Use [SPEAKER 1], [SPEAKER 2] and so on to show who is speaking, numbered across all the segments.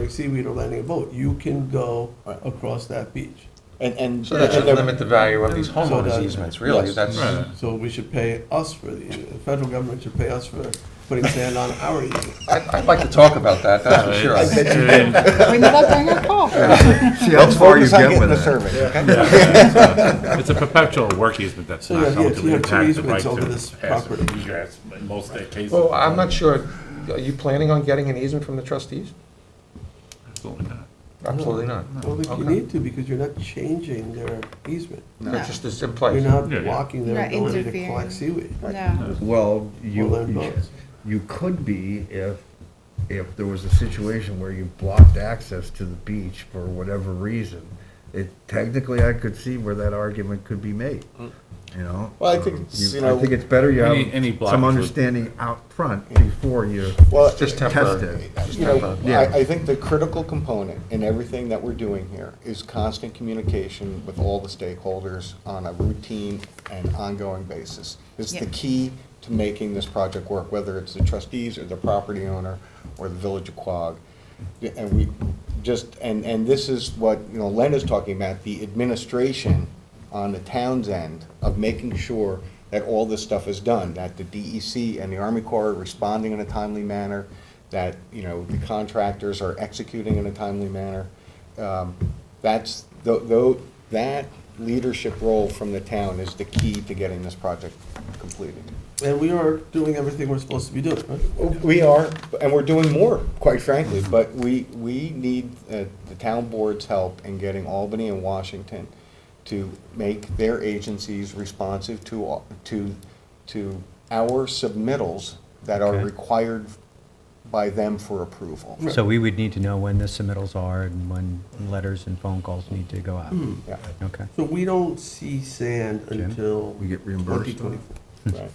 [SPEAKER 1] like seaweed or landing a boat, you can go
[SPEAKER 2] Right.
[SPEAKER 1] across that beach.
[SPEAKER 2] And, and.
[SPEAKER 3] So that should
[SPEAKER 2] and they're-
[SPEAKER 3] limit the value of these
[SPEAKER 1] So
[SPEAKER 3] homeowners
[SPEAKER 1] that-
[SPEAKER 3] easements, really,
[SPEAKER 2] Yes.
[SPEAKER 3] that's,
[SPEAKER 4] Right.
[SPEAKER 1] So we should pay us for the, the federal government should pay us for putting sand on our easement.
[SPEAKER 3] I'd, I'd like to talk about that, that's for sure.
[SPEAKER 4] Uh, It's-
[SPEAKER 3] I
[SPEAKER 4] and
[SPEAKER 5] We need to bring a call.
[SPEAKER 6] See how far you
[SPEAKER 2] Focus on
[SPEAKER 6] get
[SPEAKER 2] getting
[SPEAKER 6] with
[SPEAKER 2] the
[SPEAKER 6] it.
[SPEAKER 2] survey, okay?
[SPEAKER 4] It's a perpetual work easement that's
[SPEAKER 1] So,
[SPEAKER 4] not
[SPEAKER 1] yeah, yeah,
[SPEAKER 4] going
[SPEAKER 1] you
[SPEAKER 4] to
[SPEAKER 1] have two
[SPEAKER 4] impact the
[SPEAKER 1] easements
[SPEAKER 4] right
[SPEAKER 1] over this
[SPEAKER 4] to pass and
[SPEAKER 1] property.
[SPEAKER 4] egress, but most of the cases.
[SPEAKER 2] Oh,
[SPEAKER 3] Well, Oh, I'm not sure, are you planning on getting an easement from the trustees?
[SPEAKER 4] Absolutely not.
[SPEAKER 3] Absolutely not.
[SPEAKER 1] Well, if you
[SPEAKER 3] Okay.
[SPEAKER 1] need to, because you're not changing their easement.
[SPEAKER 3] It's just, it's in
[SPEAKER 1] You're
[SPEAKER 3] place.
[SPEAKER 1] not
[SPEAKER 4] Yeah, yeah.
[SPEAKER 1] blocking their
[SPEAKER 5] Not
[SPEAKER 1] ability to
[SPEAKER 5] interfering.
[SPEAKER 1] collect seaweed.
[SPEAKER 5] No.
[SPEAKER 6] Well,
[SPEAKER 1] Well, they're
[SPEAKER 6] you,
[SPEAKER 1] both.
[SPEAKER 6] you could be if, if there was a situation where you blocked access to the beach for whatever reason. It, technically, I could see where that argument could be made, you know?
[SPEAKER 2] Well, I think
[SPEAKER 6] Um,
[SPEAKER 2] it's, you
[SPEAKER 6] I
[SPEAKER 2] know-
[SPEAKER 6] think it's better you
[SPEAKER 4] Any- any
[SPEAKER 6] have
[SPEAKER 4] blockage
[SPEAKER 6] some
[SPEAKER 4] would-
[SPEAKER 6] understanding out front before you
[SPEAKER 2] Well,
[SPEAKER 3] Just
[SPEAKER 6] test
[SPEAKER 3] temporary.
[SPEAKER 6] it.
[SPEAKER 3] Just
[SPEAKER 2] You know,
[SPEAKER 3] temporary.
[SPEAKER 6] Yeah.
[SPEAKER 2] I, I think the critical component in everything that we're doing here is constant communication with all the stakeholders on a routine and ongoing basis. It's
[SPEAKER 5] Yeah.
[SPEAKER 2] the key to making this project work, whether it's the trustees or the property owner or the village of Quogue. Yeah, And we just, and, and this is what, you know, Len is talking about, the administration on the town's end of making sure that all this stuff is done, that the DEC and the Army Corps are responding in a timely manner, that, you know, the contractors are executing in a timely manner. Um, That's, tho- tho, that leadership role from the town is the key to getting this project completed.
[SPEAKER 1] And we are doing everything we're supposed to be doing, right?
[SPEAKER 2] We are, and we're doing more, quite frankly, but we, we need uh, the town board's help in getting Albany and Washington to make their agencies responsive to, au- to, to our submittals that are
[SPEAKER 7] Okay.
[SPEAKER 2] required by them for approval.
[SPEAKER 7] So we would need to know when the submittals are and when letters and phone calls need to go out.
[SPEAKER 2] Yeah,
[SPEAKER 7] Okay.
[SPEAKER 1] So we don't see sand until.
[SPEAKER 6] We get reimbursed.
[SPEAKER 1] 2024.
[SPEAKER 2] right.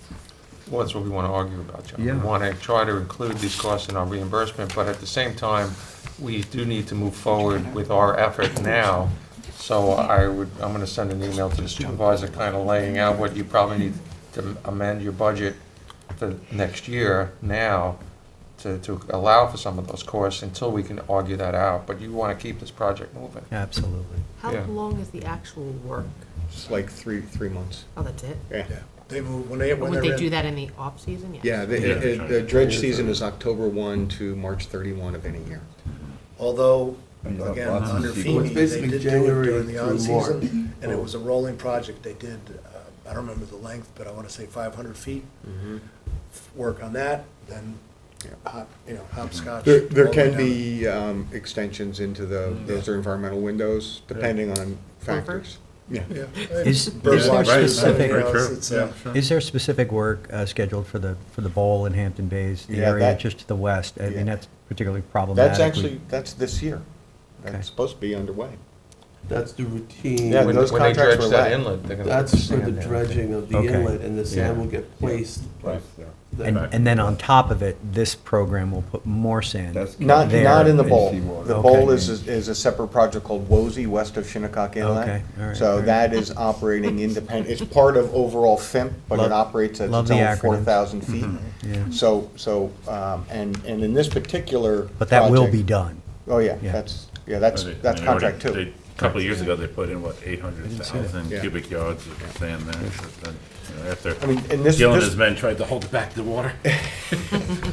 [SPEAKER 3] Well, that's what we want to argue about, John. We
[SPEAKER 6] Yeah.
[SPEAKER 3] want to try to include these costs in our reimbursement, but at the same time, we do need to move forward with our effort now. So I would, I'm going to send an email to the supervisor, kind of laying out what you probably need to amend your budget the next year now to, to allow for some of those costs until we can argue that out. But you want to keep this project moving.
[SPEAKER 7] Absolutely.
[SPEAKER 8] How
[SPEAKER 3] Yeah.
[SPEAKER 8] long is the actual work?
[SPEAKER 2] It's like three, three months.
[SPEAKER 8] Oh, that's it?
[SPEAKER 2] Yeah.
[SPEAKER 9] They move, when they,
[SPEAKER 8] Or
[SPEAKER 9] when
[SPEAKER 8] Would
[SPEAKER 9] they're
[SPEAKER 8] they do
[SPEAKER 9] in,
[SPEAKER 8] that in the off-season? Yes.
[SPEAKER 2] Yeah, the,
[SPEAKER 4] Yeah.
[SPEAKER 2] uh, the dredge season is October one to March thirty-one of any year.
[SPEAKER 9] although,
[SPEAKER 6] You have
[SPEAKER 9] again,
[SPEAKER 6] lots of
[SPEAKER 9] under
[SPEAKER 6] people.
[SPEAKER 1] Well, it's
[SPEAKER 9] FEMA, they
[SPEAKER 1] basically
[SPEAKER 9] did do it
[SPEAKER 1] January
[SPEAKER 9] during the
[SPEAKER 1] through
[SPEAKER 9] on-season, and
[SPEAKER 2] Oh.
[SPEAKER 9] it
[SPEAKER 1] March.
[SPEAKER 9] was a rolling project, they did, uh, I don't remember the length, but I wanna say five hundred feet.
[SPEAKER 2] Mm-hmm.
[SPEAKER 9] Work on that, then, hop- you know, hopscotch.
[SPEAKER 2] There, there
[SPEAKER 9] all the way
[SPEAKER 2] can
[SPEAKER 9] down.
[SPEAKER 2] be um, extensions into the,
[SPEAKER 6] Mm-hmm.
[SPEAKER 2] those are environmental windows, depending on factors. Yeah.
[SPEAKER 9] Yeah.
[SPEAKER 7] Is-
[SPEAKER 9] Bird
[SPEAKER 7] is there
[SPEAKER 9] watch,
[SPEAKER 7] specific-
[SPEAKER 9] everything
[SPEAKER 4] Very
[SPEAKER 9] else,
[SPEAKER 4] true.
[SPEAKER 9] it's, uh,
[SPEAKER 7] Is there specific work uh, scheduled for the, for the bowl in Hampton Bays, the
[SPEAKER 2] Yeah,
[SPEAKER 7] area
[SPEAKER 2] that-
[SPEAKER 7] just to the west? I
[SPEAKER 2] Yeah.
[SPEAKER 7] mean, that's particularly problematic.
[SPEAKER 2] That's
[SPEAKER 7] We-
[SPEAKER 2] actually, that's this year.
[SPEAKER 7] Okay.
[SPEAKER 2] That's supposed to be underway.
[SPEAKER 1] That's the routine.
[SPEAKER 2] Yeah,
[SPEAKER 3] When
[SPEAKER 2] those
[SPEAKER 3] when they
[SPEAKER 2] contracts
[SPEAKER 3] dredge
[SPEAKER 2] were
[SPEAKER 3] that
[SPEAKER 2] let.
[SPEAKER 3] inlet, they're going to.
[SPEAKER 1] That's for the dredging of the
[SPEAKER 7] Okay.
[SPEAKER 1] inlet, and the sand
[SPEAKER 3] Yeah.
[SPEAKER 1] will get placed. there.
[SPEAKER 7] And, and then on top of it, this program will put more sand.
[SPEAKER 2] Not,
[SPEAKER 7] there
[SPEAKER 2] not in the
[SPEAKER 7] and
[SPEAKER 2] bowl.
[SPEAKER 6] seawater.
[SPEAKER 2] The
[SPEAKER 7] Okay.
[SPEAKER 2] bowl is, is a separate project called Wozy, west of Shinnecock Inlet.
[SPEAKER 7] Okay, all right, all
[SPEAKER 2] So
[SPEAKER 7] right.
[SPEAKER 2] that is operating independent, it's part of overall FIMP, but it
[SPEAKER 7] Love-
[SPEAKER 2] operates at
[SPEAKER 7] love
[SPEAKER 2] its
[SPEAKER 7] the
[SPEAKER 2] own
[SPEAKER 7] acronyms.
[SPEAKER 2] four thousand feet.
[SPEAKER 7] yeah.
[SPEAKER 2] So, so, um, and, and in this particular.
[SPEAKER 7] But that will
[SPEAKER 2] project-
[SPEAKER 7] be done.
[SPEAKER 2] Oh, yeah,
[SPEAKER 7] Yeah.
[SPEAKER 2] that's, yeah, that's,
[SPEAKER 4] And they-
[SPEAKER 2] that's
[SPEAKER 4] and they already-
[SPEAKER 2] contract two.
[SPEAKER 4] they- A couple of years ago, they put in, what, 800,000
[SPEAKER 2] Yeah.
[SPEAKER 4] cubic yards of sand there, but then, you know, after
[SPEAKER 2] I mean, and this-
[SPEAKER 4] Gil and
[SPEAKER 2] this-
[SPEAKER 4] his men tried to hold it back to the water.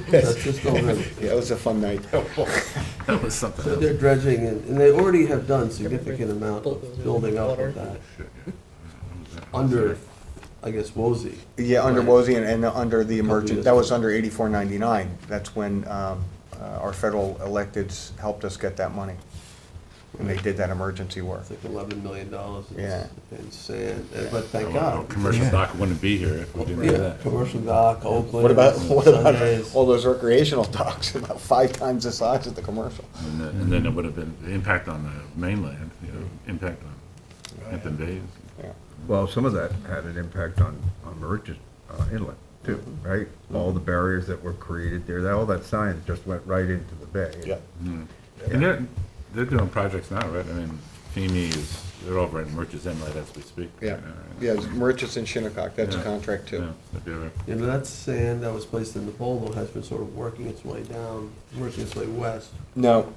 [SPEAKER 1] That's just over.
[SPEAKER 2] Yeah, it was a fun night.
[SPEAKER 4] That was something
[SPEAKER 1] So
[SPEAKER 4] else.
[SPEAKER 1] they're dredging, and and they already have done significant amount of building up of that under, I guess, Woolsey.
[SPEAKER 2] Yeah, under Wozie and, and under the
[SPEAKER 1] years
[SPEAKER 2] emergent, that was
[SPEAKER 1] ago.
[SPEAKER 2] under eighty-four ninety-nine. That's when, um, uh, our federal electeds helped us get that money. And they did that emergency work.
[SPEAKER 1] It's like eleven million dollars
[SPEAKER 2] Yeah.
[SPEAKER 1] in sand, and- but
[SPEAKER 4] I
[SPEAKER 1] thank
[SPEAKER 4] wouldn't know,
[SPEAKER 1] God.
[SPEAKER 4] Commercial dock wouldn't be here if we didn't do
[SPEAKER 1] Yeah,
[SPEAKER 4] that.
[SPEAKER 1] commercial dock, Oakland.
[SPEAKER 2] What about, what about
[SPEAKER 1] Sundays.
[SPEAKER 2] all those recreational docks, about five times the size of the commercial?
[SPEAKER 4] And then- And then it would have been, the impact on the mainland, you know, impact on Hampton Bays.
[SPEAKER 6] Well, some of that had an impact on, on Merchant uh, Inlet too, right? All the barriers that were created there, that, all that science just went right into the bay.
[SPEAKER 2] Yeah.
[SPEAKER 4] And they're, they're doing projects now, right? I mean, FEMA is, they're over at Merchants Inlet as we speak.
[SPEAKER 2] Yeah,
[SPEAKER 4] Yeah.
[SPEAKER 2] yeah, it's Merchants and Shinnecock, that's a
[SPEAKER 4] Yeah.
[SPEAKER 2] contract
[SPEAKER 4] Yeah,
[SPEAKER 2] too.
[SPEAKER 4] they'd be over.
[SPEAKER 1] You know, that sand that was placed in the bowl though has been sort of working its way down, working its way west.
[SPEAKER 2] No,